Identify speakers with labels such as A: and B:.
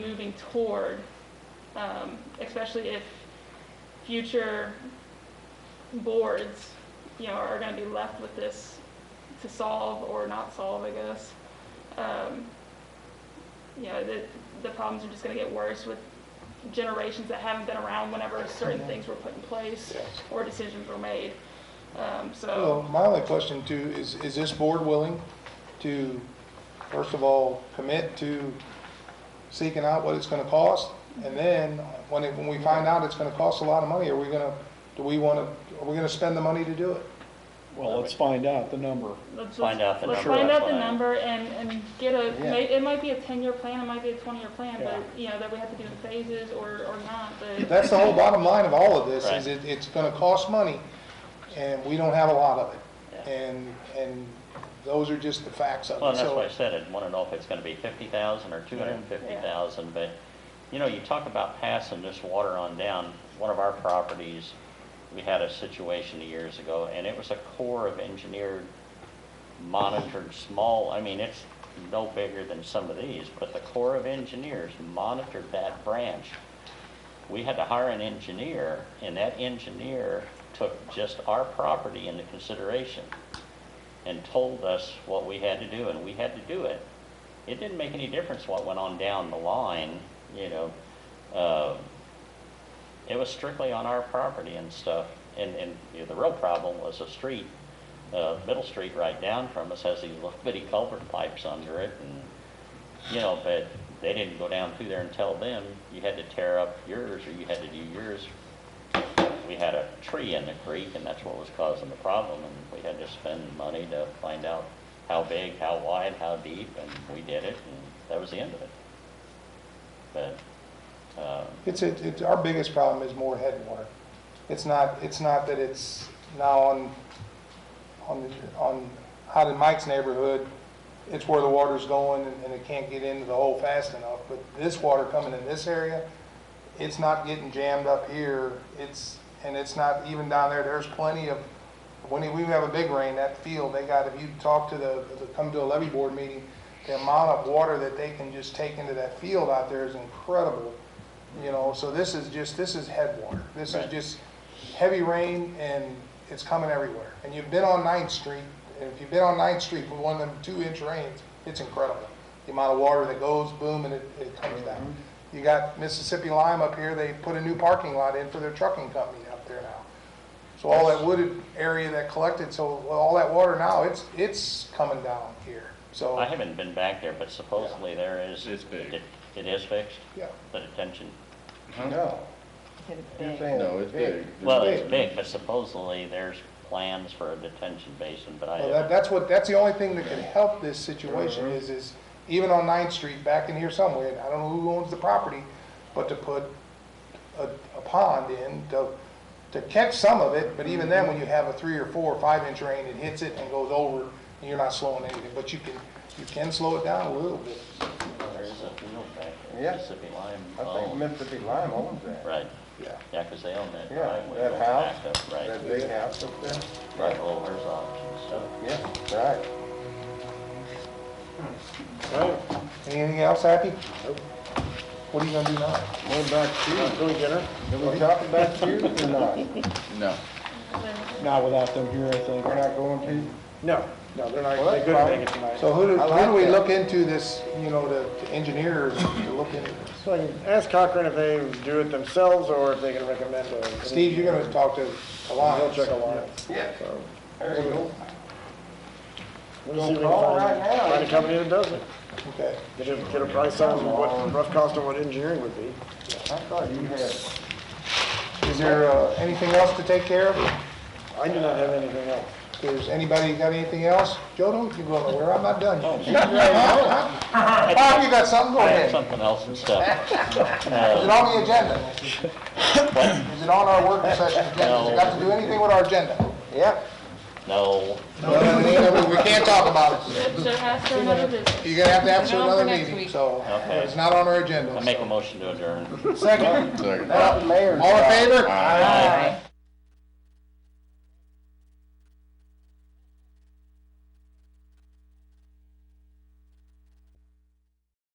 A: working toward, um, especially if future boards, you know, are gonna be left with this to solve or not solve, I guess. Um, you know, the, the problems are just gonna get worse with generations that haven't been around whenever certain things were put in place
B: Yes.
A: or decisions were made. Um, so,
B: Well, my only question too, is, is this board willing to, first of all, commit to seeking out what it's gonna cost? And then, when it, when we find out it's gonna cost a lot of money, are we gonna, do we wanna, are we gonna spend the money to do it?
C: Well, let's find out the number.
A: let's,
D: Find
A: let's
D: out the
A: let's
D: number,
A: find
D: that's
A: out the
D: what I-
A: number and, and get a,
C: Yeah.
A: may- it might be a ten-year plan, it might be a twenty-year plan, but,
C: Yeah.
A: you know, that we have to do in phases or, or not, but,
B: That's the whole bottom line of all of this,
D: Right.
B: is it, it's gonna cost money, and we don't have a lot of it.
D: Yeah.
B: And, and those are just the facts of it.
D: Well, and that's
B: So-
D: why I said, I'd want to know if it's going to be 50,000 or 250,000, but, you know, you talk about passing this water on down, one of our properties, we had a situation years ago, and it was a core of engineered, monitored, small, I mean, it's no bigger than some of these, but the Corps of Engineers monitored that branch. We had to hire an engineer, and that engineer took just our property into consideration and told us what we had to do, and we had to do it. It didn't make any difference what went on down the line, you know. Uh, It was strictly on our property and stuff. And, and you know, the real problem was a street, uh, Middle Street right down from us has these little bitty culvert pipes under it and, you know, but they didn't go down through there and tell them, you had to tear up yours or you had to do yours we had a tree in the creek, and that's what was causing the problem, and we had to spend money to find out how big, how wide, how deep, and we did it, and that was the end of it. But, uh,
B: It's, it- it's, our biggest problem is more headwater. It's not, it's not that it's now on, on, the- on, out in Mike's neighborhood, it's where the water's going and- and it can't get into the hole fast enough, but this water coming in this area, it's not getting jammed up here, it's, and it's not even down there, there's plenty of, when we have a big rain, that field, they got, if you talk to the, the- come to a levy board meeting, the amount of water that they can just take into that field out there is incredible. You know, so this is just, this is headwater. This is
D: Right.
B: just heavy rain and it's coming everywhere. And you've been on Ninth Street, and if you've been on Ninth Street with one of them two-inch rains, it's incredible. The amount of water that goes, boom, and it, it comes down. You got Mississippi Lime up here, they put a new parking lot in for their trucking company up there now. So all that wooded area that collected, so all that water now, it's, it's coming down here. So,
D: I haven't been back there, but supposedly there is.
E: It's big.
D: it- It is fixed,
B: yeah.
D: the detention,
E: No, no, it's big.
D: well, it's big, but supposedly there's plans for a detention basin, but I
B: Well, that,
D: haven't.
B: that's what, that's the only thing that could help this situation
E: Mm-hmm.
B: is, is even on Ninth Street, back in here somewhere, and I don't know who owns the property, but to put a, a pond in to, to catch some of it, but even
E: Mm-hmm.
B: then, when you have a three or four or five inch rain, it hits it and goes over, and you're not slowing anything, but you can, you can slow it down a little bit.
D: There is a field back
E: Yeah.
D: there, Mississippi Lime
E: I think
D: owns,
E: Mississippi Lime owns that.
D: right,
B: Yeah.
D: yeah, because they own that
E: Yeah,
D: driveway.
E: that
D: going
E: house,
D: back up, Right.
E: That big house up there.
D: Right, well, there's options, so.
E: Yeah, right.
B: Anything else, Happy? What are you gonna do now?
E: What about you? Go dinner. Did we talk about you or not?
F: No.
C: Not without them here, I think.
E: We're not going to?
G: No, no, they're not,
E: Well,
G: they
E: that's
G: couldn't
E: fine.
G: make it tonight.
B: So who do,
E: I
B: who
E: like
B: do we
E: that.
B: look into this, you know, the the engineers to look into? this?
G: So I can ask Cochran if they do it themselves or if they can recommend a.
B: Steve, you're gonna talk to
G: They'll
B: Alliance.
G: check Alliance.
E: Yeah. There you go.
G: We'll see if we can
E: Call
G: find-
E: right now.
G: Find a company that does it.
B: Okay.
G: Get a, get a price on what, rough cost of what engineering would be.
E: I thought you had,
B: Is there uh, anything else to take care of?
G: I do not have anything else.
B: Does anybody got anything else? Joe, don't you go nowhere, I'm not done. yet. Bob, you got something, go
D: I have
B: ahead.
D: something else and stuff.
B: Is it on the agenda? Is it on our work session agenda? Does it got to do anything with our agenda?
E: yeah.
D: No,
B: We can't talk about it.
A: should ask for another visit.
B: You're gonna have to have
A: Put it on for
B: another
A: next
B: meeting,
A: week.
B: so
D: Okay.
B: it's not on our agenda.
D: I make a motion to adjourn.
B: Second,
F: Second.
E: Not the mayor's.
B: all in favor?
F: Aye.